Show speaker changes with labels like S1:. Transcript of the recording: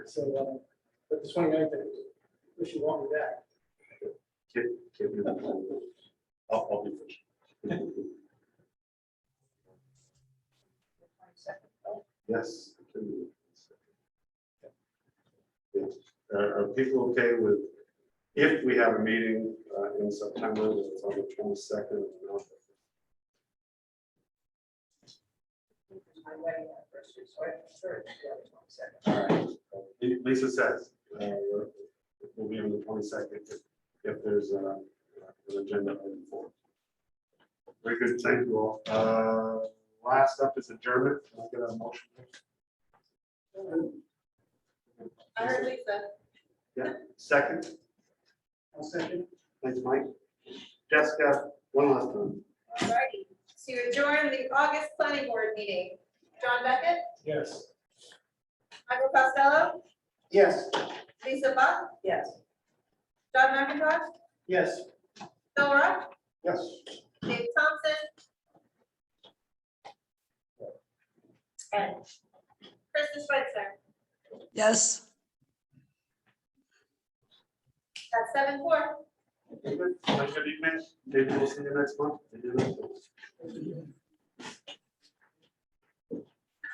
S1: So, uh, but the 29th, I wish you all the best.
S2: Can- can you- I'll, I'll be first. Yes. I can do that. Yes. Uh, Are, are people okay with, if we have a meeting uh, in September, that it's on the twenty-second?
S3: My wedding anniversary, so I'm sure it's the other twenty-second.
S2: All right. Uh, Lisa says, uh, we're- we'll be on the twenty-second if, if there's uh, an agenda item for. it. Very good, thank you all. Uh, Last up is adjournment. Can I get a motion?
S4: I heard Lisa.
S2: Second,
S1: I'll second.
S2: thanks, Mike. Jessica, one last time.
S4: Alrighty, to adjourn the August planning board meeting. John Beckett,
S1: Yes.
S4: Michael Costello,
S1: Yes.
S4: Lisa Buck,
S3: Yes.
S4: John McIntosh,
S1: Yes.
S4: Phil Rock,
S2: Yes.
S4: Dave Thompson. And Kristen Switzer
S5: Yes.
S4: at seven four.
S2: Have a Good evening. Maybe we'll see you next month. Maybe next month.